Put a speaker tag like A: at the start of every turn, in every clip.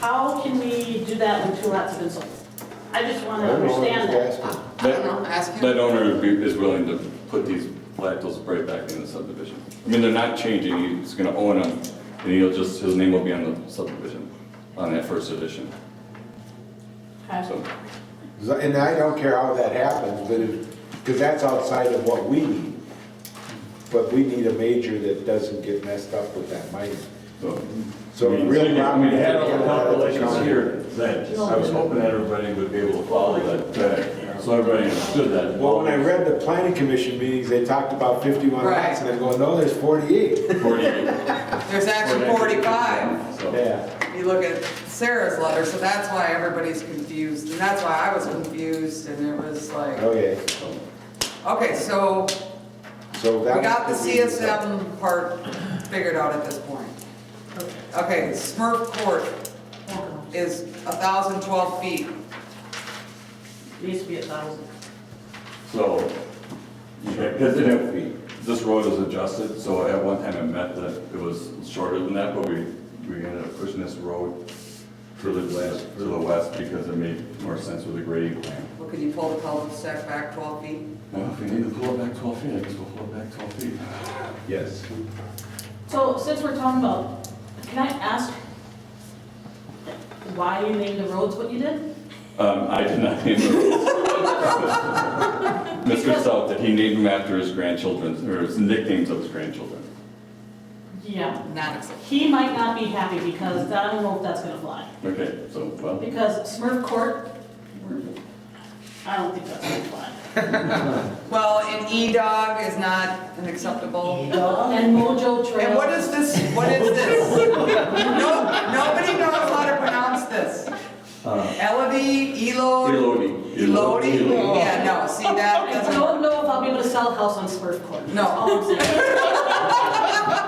A: How can we do that when two lots have been sold? I just want to
B: I don't know,
A: understand
B: I'm just
A: that.
B: asking.
C: I
D: That-
C: don't know, ask him.
D: That owner would be- is willing to put these lactals right back in the subdivision. I mean, they're not changing, he's gonna own them, and he'll just, his name will be on the subdivision, on that first edition,
A: Okay.
D: so.
B: And I don't care how that happens, but if, because that's outside of what we need. But we need a major that doesn't get messed up with that minor.
D: so-
B: So
D: I mean,
B: real
D: so you can- I
B: property-
D: mean, had all the
B: Yeah.
D: calculations here, that, I was hoping that everybody would be able to follow that, that, so everybody understood that.
B: Well, when I read the planning commission meetings, they talked about 51 lots, and I go, no, there's 48.
D: 48.
C: There's actually forty-five.
D: So-
B: Yeah,
C: You look at Sarah's letter, so that's why everybody's confused, and that's why I was confused, and it was like,
B: okay,
C: okay, so
B: so
C: we
B: that.
C: got the
B: was meeting.
C: CSM part figured out at this point. Okay, Smurf Court is thousand twelve feet.
A: Needs to be a thousand.
D: So, because it, this road is adjusted, so at one time it meant that it was shorter than that, but we, we ended up pushing this road to the west, to the west because it made more sense with the grading plan.
C: Well, could you pull the cul-de-sac back twelve feet?
D: Well, if we need to pull it back twelve feet, I guess we'll pull it back twelve feet.
B: Yes.
A: So since we're talking about, can I ask why you named the roads what you did?
D: Um, I did not name the Mr. South, did he name them after his grandchildren, or his nicknames of his grandchildren?
A: Yeah,
C: Not acceptable.
A: he might not be happy because I don't know if that's gonna fly.
D: Okay, so, well,
A: Because Smurf Court, I don't think that's gonna fly.
C: Well, an E-Dog is not an acceptable.
A: And Mojo Trail.
C: And what is this, what is this? No, nobody knows how to pronounce this.
D: Uh.
C: Elodie, Elod?
D: Elodie.
C: Elodie? Yeah, no, see, that
A: I
C: doesn't,
A: don't know if I'll be able to sell a house on Smurf Court.
C: No.
A: That's all I'm saying.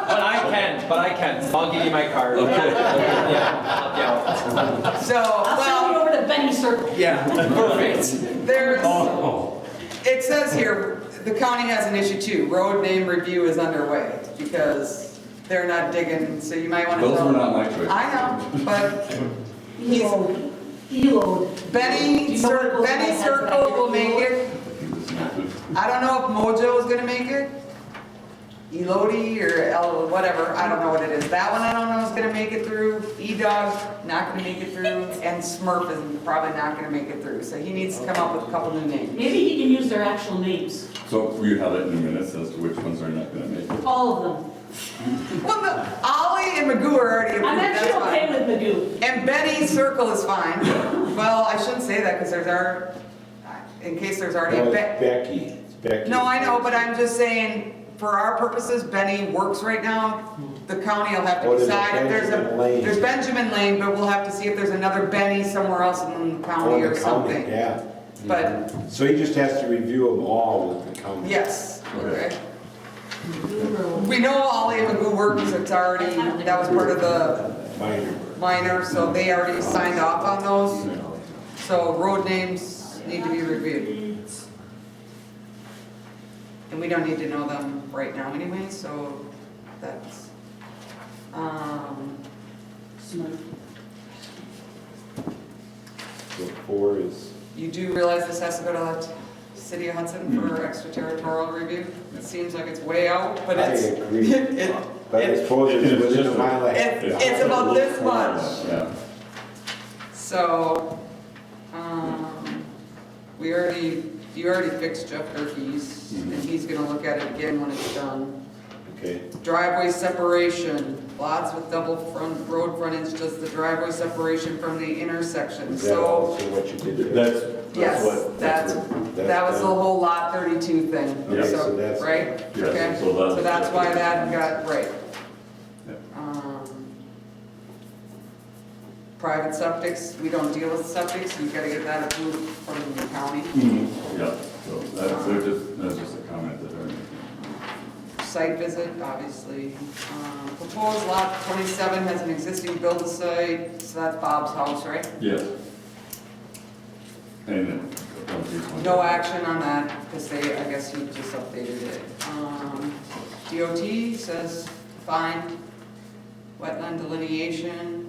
E: But I can, but I can. I'll give you my card. Yeah,
C: so,
A: I'll sell you
C: well,
A: over to Benny Circle.
E: yeah. Perfect.
C: there's,
D: Oh.
C: it says here, the county has an issue too, road name review is underway, because they're not digging, so you might want to.
D: Those were not my choice.
C: I know, but he's,
A: Elode. Elode. Do
C: Benny,
A: you know where it
C: Cir-
A: goes in my
C: Benny
A: head when I
C: Circle
A: hear
C: will make
A: Elode?
C: it. I don't know if Mojo is gonna make it. Elodie or El, whatever, I don't know what it is. That one I don't know is gonna make it through. E-Dog, not gonna make it through. And Smurf is probably not gonna make it through. So he needs to come up with a couple new names.
A: Maybe he can use their actual names,
D: So you have it in minutes as to which ones are not gonna make it.
A: all of them.
C: Well, no, Ollie and Magoo are already approved,
A: I'm actually
C: that's
A: okay
C: fine.
A: with Magoo.
C: And Benny Circle is fine. Well, I shouldn't say that because there's our, in case there's already
B: No,
C: a
B: it's
C: bet.
B: Becky, It's Becky.
C: No, I know, but I'm just saying, for our purposes, Benny works right now. The county will have to
B: What is it,
C: decide if there's a,
B: Benjamin Lane?
C: there's Benjamin Lane, but we'll have to see if there's another Benny somewhere else in the county
B: On the
C: or
B: county,
C: something.
B: yeah.
C: But,
B: So he just has to review them all with the county.
C: yes, okay.
A: Magoo Road.
C: We know Ollie and Magoo works, it's already, that was part of the
B: Minor.
C: minor, so they already signed off on those. So road names need to be reviewed. And we don't need to know them right now anyway, so that's, um,
A: Smurf.
B: So four is,
C: You do realize this has to go to the city of Hudson for extraterritorial review? It seems like it's way out, but
B: I
C: it's, it,
B: agree.
C: it,
B: But I suppose it's
D: It's
B: within a
D: just-
B: mile of.
C: it's about this much.
D: Yeah.
C: So, um, we already, you already fixed Jeff Durkee's, and he's gonna look at it again when it's done.
B: Okay.
C: Driveway separation, lots with double front, road frontage does the driveway separation from the intersection,
B: Is that
C: so.
B: also what you did there?
D: That's, that's
C: Yes,
D: what,
C: that's,
D: that's what.
B: that's
C: that was the
B: done.
C: whole lot thirty-two thing,
B: Yeah,
C: so,
B: so that's-
C: right?
D: Yeah,
C: Okay,
D: so that's-
C: so that's why that got, right.
D: Yeah.
C: Um, Private septics, we don't deal with septics, you gotta get that approved from the county.
D: Yeah, so that's, they're just, that's just a comment that I
C: Site visit, obviously. Um, Proposed lot twenty-seven has an existing build site, so that's Bob's house, right?
D: made. Yes. And. uh, these ones.
C: No action on that, because they, I guess you just updated it. Um, DOT says fine, wetland delineation,